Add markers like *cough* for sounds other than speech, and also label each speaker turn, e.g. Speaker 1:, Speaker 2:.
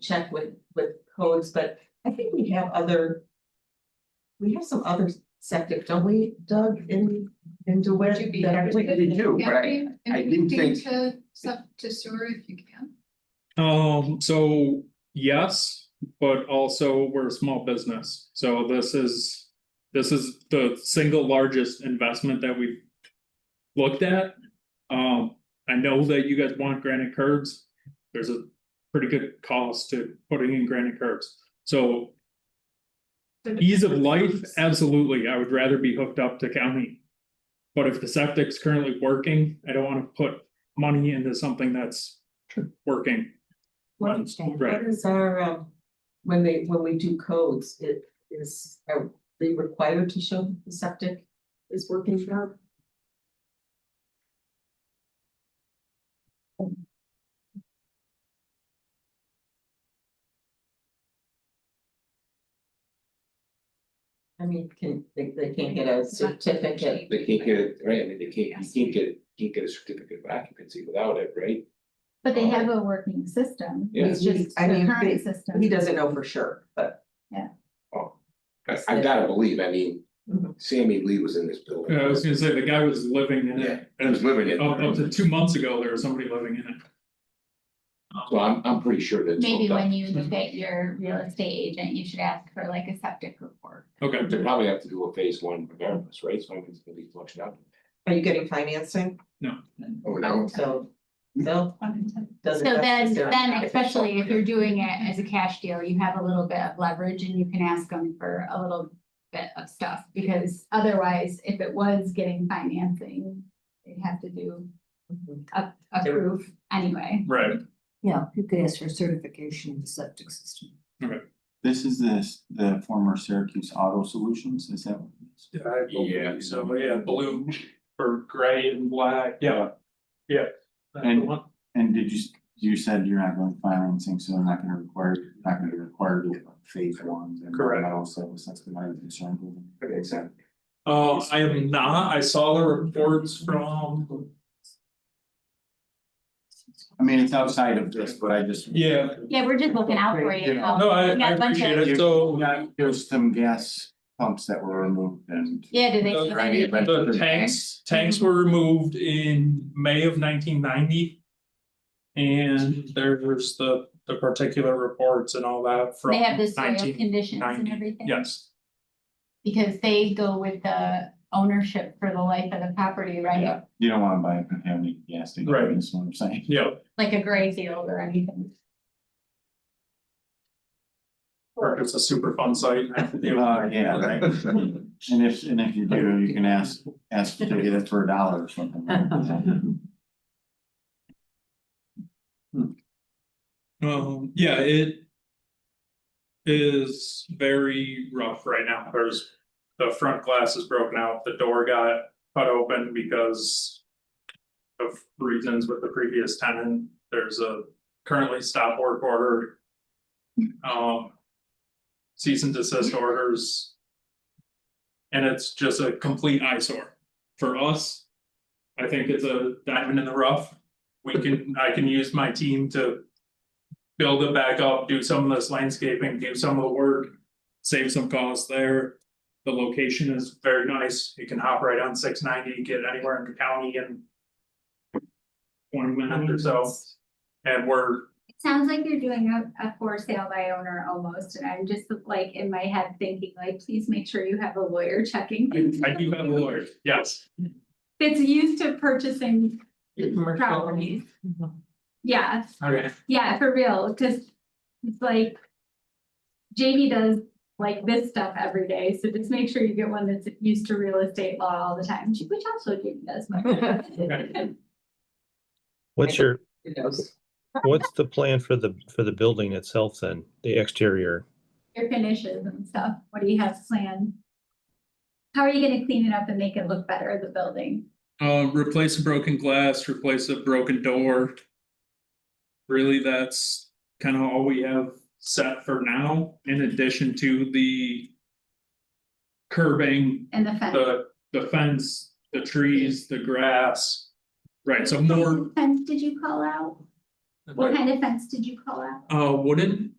Speaker 1: check with, with codes, but I think we have other. We have some other septic, don't we, Doug, in, in DeWitt?
Speaker 2: Should be
Speaker 1: that are-
Speaker 2: everything.
Speaker 3: They do,
Speaker 2: Yeah,
Speaker 3: but I-
Speaker 2: and
Speaker 3: I didn't
Speaker 2: connecting
Speaker 3: think-
Speaker 2: To sub to sewer if you can.
Speaker 4: Um, so yes, but also we're a small business, so this is. This is the single largest investment that we've looked at. Um, I know that you guys want granite curbs. There's a pretty good cost to putting in granite curbs, so. Ease of life, absolutely, I would rather be hooked up to county. But if the septic's currently working, I don't wanna put money into something that's working.
Speaker 1: What
Speaker 4: Right.
Speaker 1: is, what is our, um, when they, when we do codes, it is, are they required to show the septic is working now? I mean, can, they, they can't get a certificate,
Speaker 3: They can't get, it, right, I mean, they can't, you can't get, can't get a certificate of occupancy without it, right?
Speaker 5: But they have a working system.
Speaker 3: Yeah.
Speaker 5: It's just
Speaker 1: I mean,
Speaker 5: the
Speaker 1: they-
Speaker 5: current system.
Speaker 1: he doesn't know for sure, but.
Speaker 3: Oh, I, I gotta believe, I mean,
Speaker 5: Mm-hmm.
Speaker 1: Mhm.
Speaker 3: Sammy Lee was in this building.
Speaker 4: Yeah, Uh, I was Oh, gonna say, the guy was living in
Speaker 3: Yeah,
Speaker 4: it,
Speaker 3: He was living it.
Speaker 4: up, up to two months ago, there was somebody living in it.
Speaker 3: So I'm, I'm pretty sure that.
Speaker 5: Maybe when you look at your real estate agent, you should ask for like a septic report.
Speaker 4: Okay,
Speaker 3: They probably have to do a phase one regardless, right? So I mean, it's gonna be flushed out.
Speaker 1: Are you getting financing?
Speaker 3: Oh, no.
Speaker 1: So, no,
Speaker 5: So
Speaker 1: doesn't.
Speaker 5: then,
Speaker 1: necessarily-
Speaker 5: then especially if you're doing it as a cash deal, you have a little bit of leverage and you can ask them for a little bit of stuff. Because otherwise, if it was getting financing, they'd have to do a, a
Speaker 1: They would-
Speaker 5: proof anyway.
Speaker 4: right,
Speaker 6: Yeah, you could ask for certification of the septic system.
Speaker 7: This is this, the former Syracuse Auto Solutions, is that? what it is?
Speaker 4: yeah, so, yeah, blue or gray and black, yeah, yeah. that's the
Speaker 7: And-
Speaker 4: one.
Speaker 7: And did you, s- you said you're not going financing, so they're not gonna require, not gonna require the phase ones and
Speaker 4: Correct.
Speaker 7: that also, so that's the main concern. with them.
Speaker 3: That makes sense.
Speaker 4: Uh, I am not, I saw the reports from,
Speaker 7: I mean, it's outside of this, but I just.
Speaker 4: yeah,
Speaker 5: Yeah, we're just looking out for you.
Speaker 7: Yeah.
Speaker 4: no, I, I
Speaker 5: Yeah, a bunch of-
Speaker 4: appreciate it, so.
Speaker 7: Yeah, There's some gas pumps that were removed and.
Speaker 5: Yeah, do they?
Speaker 4: Uh,
Speaker 7: Right, but-
Speaker 4: The tanks, tanks were removed in May of nineteen ninety. And there's the, the particular reports and all that from
Speaker 5: They have the soil
Speaker 4: 19
Speaker 5: conditions and
Speaker 4: 90,
Speaker 5: everything?
Speaker 4: Yes,
Speaker 5: Because they go with the ownership for the life of the property, right?
Speaker 7: Yeah. You don't wanna buy a contaminated gas station,
Speaker 4: Right.
Speaker 7: that's what I'm saying.
Speaker 4: yeah,
Speaker 5: Like a gray field or anything.
Speaker 4: or it's a super fun *laughs* site.
Speaker 7: *laughs* Uh, yeah, right. And if, and if you do, you can ask, ask to get it for a dollar or something.
Speaker 1: *laughs*
Speaker 4: Um, yeah, it. Is very rough right now, there's, the front glass is broken out, the door got cut open because. Of reasons with the previous tenant, there's a currently stop work order. Um. Cease and desist orders. And it's just a complete eyesore for us. I think it's a diamond in the rough. We can, I can use my team to build it back up, do some of this landscaping, do some of the work, save some costs there. The location is very nice. You can hop right on six ninety, get anywhere in the county in twenty minutes or so, and we're,
Speaker 5: It sounds like you're doing a, a for sale by owner almost, and I'm just like in my head thinking like, please make sure you have a lawyer checking.
Speaker 4: I do have a lawyer, yes.
Speaker 5: That's used to purchasing
Speaker 1: Commercial.
Speaker 5: properties. Yeah,
Speaker 4: Okay.
Speaker 5: yeah, for real, just, it's like. JD does like this stuff every day, so just make sure you get one that's used to real estate law all the time, which also JD does. by the way.
Speaker 4: *laughs*
Speaker 8: What's your,
Speaker 1: Who knows?
Speaker 8: what's the plan for the, for the building itself then, the exterior?
Speaker 5: Your finishes and stuff, what do you have planned? How are you gonna clean it up and make it look better, the building?
Speaker 4: *laughs* Um, replace a broken glass, replace a broken door. Really, that's kind of all we have set for now, in addition to the curbing
Speaker 5: And the fence?
Speaker 4: the, the fence, the trees, the grass. Right, so more,
Speaker 5: Fence did you call out? What kind of fence did you call out?
Speaker 4: Uh, wooden,